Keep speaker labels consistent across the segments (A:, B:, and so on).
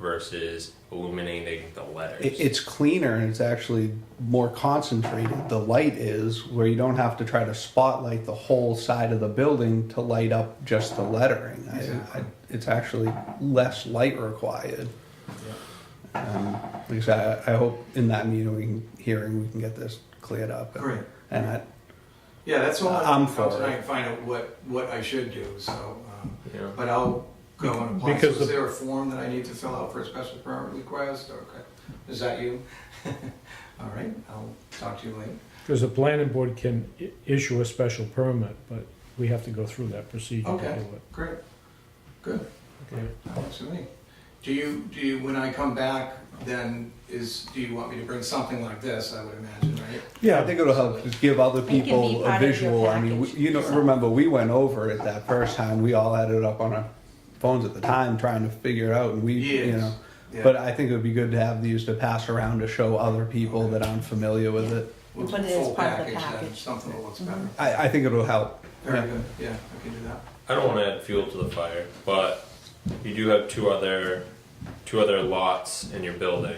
A: versus illuminating the letters.
B: It, it's cleaner and it's actually more concentrated. The light is where you don't have to try to spotlight the whole side of the building to light up just the lettering. I- I, it's actually less light required. Um, like I said, I, I hope in that meeting we can, hearing we can get this cleared up.
C: Great.
B: And I,
C: Yeah, that's all
B: I'm
C: I'm
B: for
C: for.
B: it.
C: I can find out what, what I should do, so, um,
A: you know?
C: but I'll go and apply. So
D: Because
C: is
D: the-
C: there a form that I need to fill out for a special permit request? Okay, is that you? All right, I'll talk to you later.
D: Because the planning board can i- issue a special permit, but we have to go through that procedure to do
C: Okay.
D: it.
C: Great, good,
D: Okay.
C: that works for me. Do you, do you, when I come back, then is, do you want me to bring something like this, I would imagine, right?
B: I
D: Yeah,
B: think it'll help just give other
E: can be
B: people a
E: part of your
B: visual. I mean, we-
E: package.
B: you know, remember we went over it that first time. We all had it up on our phones at the time, trying to figure it out, and we, you
C: Yes.
B: know.
C: Yeah.
B: But I think it would be good to have these to pass around to show other people that I'm familiar with it.
C: We'll
E: But it is
C: full
E: part of the
C: then,
E: package. Mm-hmm.
C: Something that looks better.
B: I, I think it'll help. Yeah.
C: Very good, yeah, I can do that.
A: I don't want to add fuel to the fire, but you do have two other two other lots in your building.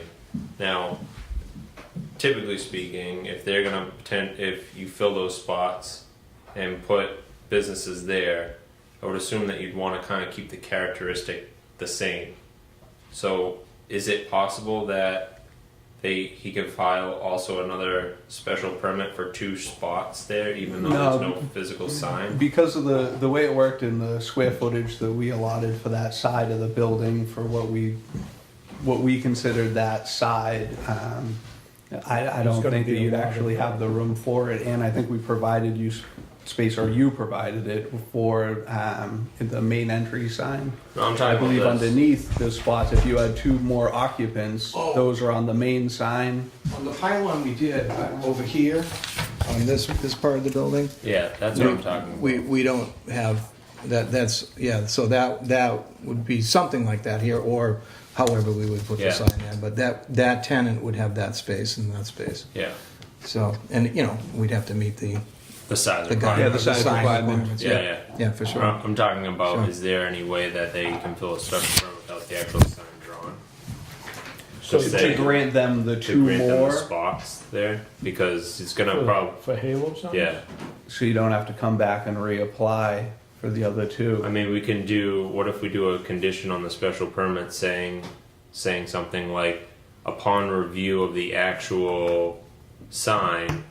A: Now, typically speaking, if they're gonna pretend if you fill those spots and put businesses there, I would assume that you'd want to kind of keep the characteristic the same. So, is it possible that they he could file also another special permit for two spots there, even though there's
B: No.
A: no physical sign?
B: Because of the, the way it worked and the square footage that we allotted for that side of the building for what we what we considered that side, um, I, I don't
D: It's gonna
B: think that
D: be a
B: you'd
D: lot of
B: actually have the room for it. And I think we provided you s- space, or you provided it for um, the main entry sign.
A: No, I'm
B: I
A: talking
B: believe
A: about this.
B: underneath those spots, if you had two more occupants,
C: Oh.
B: those are on the main sign.
C: On the pylon we did, but over here, on this, this part of the building,
A: Yeah, that's what I'm talking about.
C: we, we don't have, that, that's, yeah, so that, that would be something like that here, or however we would put the
A: Yeah.
C: sign in, but that, that tenant would have that space and that space.
A: Yeah,
C: So, and, you know, we'd have to meet the,
A: the size Uh-huh.
C: the
A: of
C: guy.
B: Yeah, the size requirement.
A: Yeah, yeah.
C: Yeah, for
A: What I'm
C: sure.
A: I'm talking about
C: Sure.
A: is there any way that they can fill a structure permit without the actual sign drawn
D: so
A: Just
B: To
A: say-
D: for
B: grant them the
A: to
B: two
A: grant them the
B: more,
A: spots there because it's gonna
D: the-
A: probably
D: for Halo signs?
A: yeah.
B: so you don't have to come back and reapply for the other two.
A: I mean, we can do. What if we do a condition on the special permit saying, saying something like, upon review of the actual sign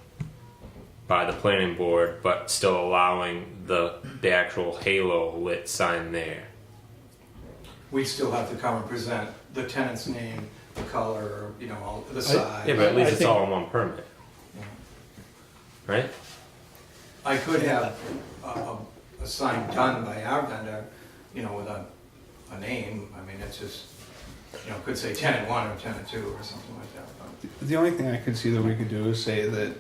A: by the planning board, but still allowing the the actual halo lit sign there.
C: We still have to come and present the tenant's name, the color, you know, all, the
A: Yeah, but at
D: I
A: least it's
D: think-
A: all in one permit, right?
C: I could have a, a, a sign done by our vendor, you know, with a, a name, I mean, it's just, you know, could say tenant one or tenant two or something like that, but,
B: The only thing I could see that we could do is say that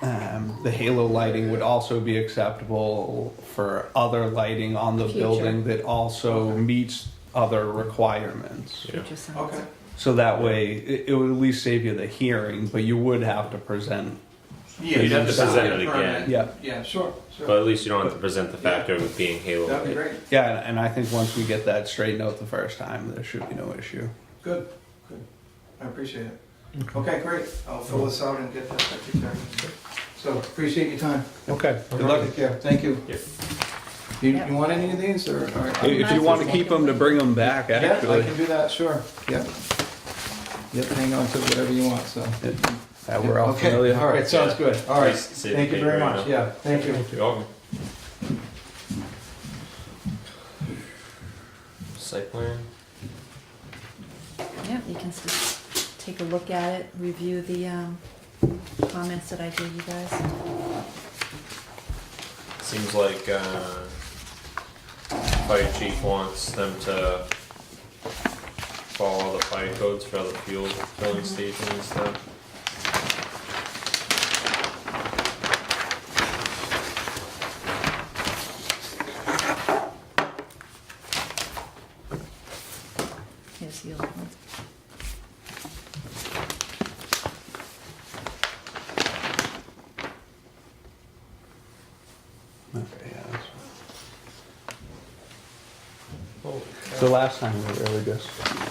B: um, the halo lighting would also be acceptable for other lighting on the
E: Future.
B: building that also meets other requirements.
A: Yeah.
E: Just sounds-
C: okay.
B: So that way, it, it would at least save you the hearing, but you would have to present.
C: Yeah,
A: You'd have to
C: so-
A: present it
C: permit.
A: again.
B: Yeah.
C: Yeah, sure,
A: But
C: sure,
A: at least you don't have to present the factor of it being halo
C: that'd be
A: lit.
C: great,
B: Yeah, and, and I think once we get that straightened out the first time, there should be no issue.
C: good, good, I appreciate it. Okay, great, I'll fill this out and get that secretary, so appreciate your time.
D: Okay.
B: Good luck.
C: Take care, thank you.
A: Yeah.
C: You,
E: Yeah.
C: you want any of these, or? or-
B: If you want to keep them, to bring them back,
C: Yeah, I
B: actually.
C: can do that, sure, yeah. Yep, hang on to whatever you want, so.
B: Yeah, We're all
C: Okay,
B: familiar.
C: All right, sounds good. All right,
A: Please sit
C: thank you
A: here
C: very
A: right
C: much.
A: now.
C: Yeah, thank you.
A: You're welcome. Site plan?
E: Yeah, you can just take a look at it, review the um, comments that I gave you guys.
A: Seems like uh, fire chief wants them to follow the fire codes for other fuel filling stations and stuff.
E: Here's the old one.
B: Okay, yeah, that's-
A: Holy
B: So last time we were really just